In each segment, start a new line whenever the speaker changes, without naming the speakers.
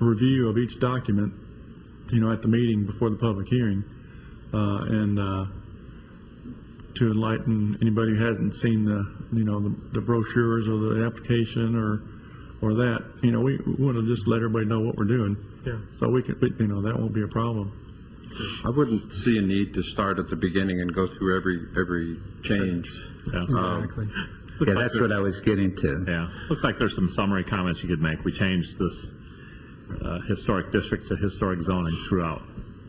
review of each document, you know, at the meeting before the public hearing, uh, and uh, to enlighten anybody who hasn't seen the, you know, the the brochures or the application or, or that, you know, we want to just let everybody know what we're doing.
Yeah.
So we could, you know, that won't be a problem.
I wouldn't see a need to start at the beginning and go through every, every change.
Exactly.
Yeah, that's what I was getting to.
Yeah, looks like there's some summary comments you could make. We changed this uh, historic district to historic zoning throughout.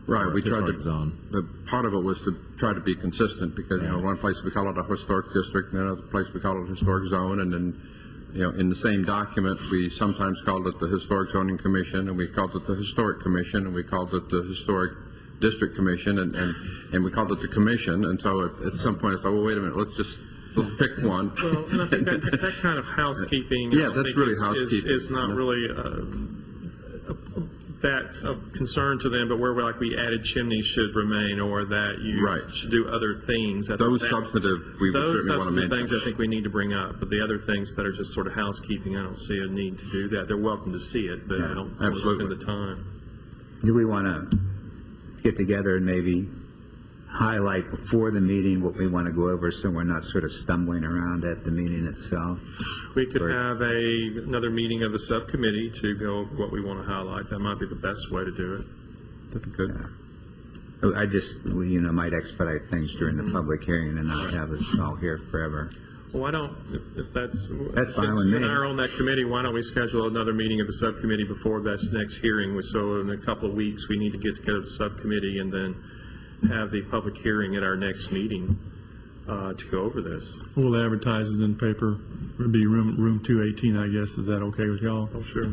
Right, we tried to,
Historic zone.
the, part of it was to try to be consistent, because, you know,
Yeah.
one place we call it a historic district, and another place we call it historic zone, and then, you know, in the same document, we sometimes called it the Historic Zoning Commission, and we called it the Historic Commission, and we called it the Historic District Commission, and, and, and we called it the Commission, and so at, at some point, I thought, well, wait a minute, let's just, let's pick one.
Well, and I think that, that kind of housekeeping. I
Yeah,
don't
that's
think
really
is- is-
housekeeping.
Is not really uh, that of concern to them, but where we, like, we added chimneys should remain, or that you
Right.
should do other things. I think
Those
that-
substantive, we would
Those
certainly want to
substantive
mention.
things I think we need to bring up, but the other things that are just sort of housekeeping, I don't see a need to do that. They're welcome to see it, but I don't want to spend
absolutely.
the time.
Do we want to get together and maybe highlight before the meeting what we want to go over so we're not sort of stumbling around at the meeting itself?
We could have a, another meeting of the subcommittee to go over what we want to highlight. That might be the best way to do it.
Good.
Oh, I just, we, you know, might expedite things during the public hearing and not have us all here forever.
Why don't, if- if that's.
That's fine with
Since
me.
you're on that committee, why don't we schedule another meeting of the subcommittee before this next hearing? We- So in a couple of weeks, we need to get together the subcommittee and then have the public hearing at our next meeting uh, to go over this.
We'll advertise it in paper, it'd be room, room 218, I guess, is that okay with y'all?
Oh, sure.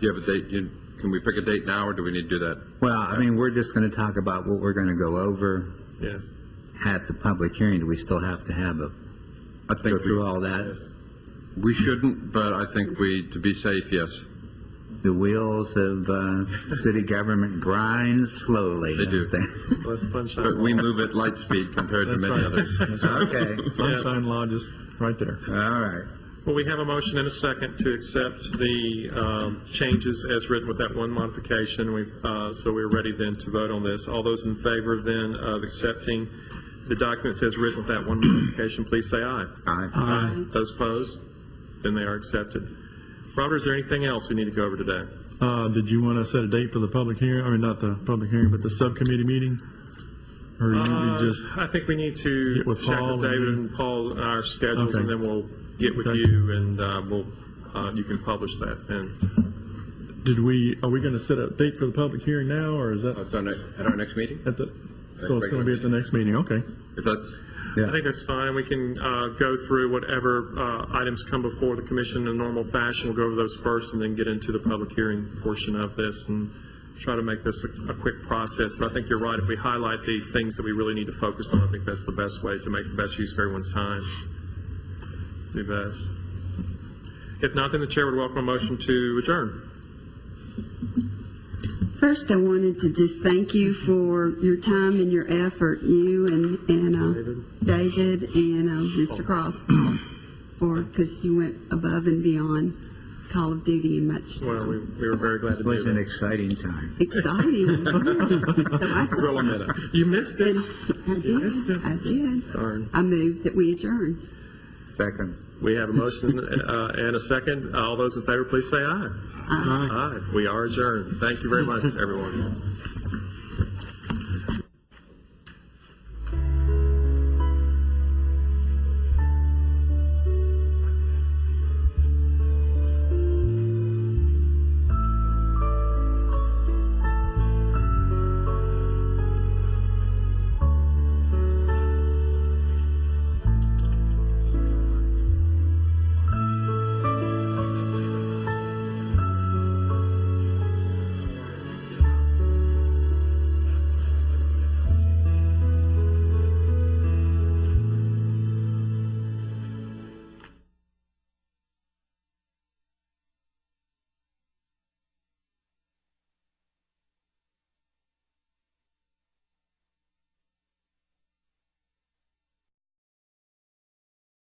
Do you have a date? You- Can we pick a date now, or do we need to do that?
Well, I mean, we're just going to talk about what we're going to go over
Yes.
at the public hearing. Do we still have to have a,
I
go
think
through
we,
all that?
we shouldn't, but I think we, to be safe, yes,
The wheels of uh, city government grind slowly.
They do.
Let's sunshine.
but we
law.
move at light speed compared to
That's
many
right.
others.
That's right.
Okay,
Sunshine Law, just right there.
all right.
Well, we have a motion and a second to accept the um, changes as written with that one modification. We've, uh, So we're ready then to vote on this. All those in favor then of accepting the documents as written with that one modification, please say aye.
Aye.
Aye. Those opposed? Then they are accepted. Robert, is there anything else we need to go over today?
Uh, did you want to set a date for the public hearing, I mean, not the public hearing, but the subcommittee meeting? Or you- you just,
Uh, I think we need to
Get with
check
Paul
with
and
David
you.
and Paul and our schedules,
Okay.
and then we'll get with
Okay.
you, and uh, we'll, uh, you can publish that then.
did we, are we going to set a date for the public hearing now, or is that
At our ne- at our next meeting?
at the, so it's going to be at the next meeting, okay.
If that's,
Yeah.
I think that's fine, and we can uh, go through whatever uh, items come before the commission in a normal fashion. We'll go over those first and then get into the public hearing portion of this and try to make this a a quick process. But I think you're right, if we highlight the things that we really need to focus on, I think that's the best way to make the best use of everyone's time. Do best. If not, then the chair would welcome a motion to adjourn.
First, I wanted to just thank you for your time and your effort, you and, and uh, David and uh, Mr. Cross, for, because you went above and beyond Call of Duty and much
Well, we we were very glad to
It
do
was an
that.
exciting time.
exciting. So I
Rolling it up. You missed it.
I did, I did. I moved that we adjourn.
Second.
We have a motion uh, and a second. All those in favor, please say aye. Aye. We are adjourned. Thank you very much, everyone.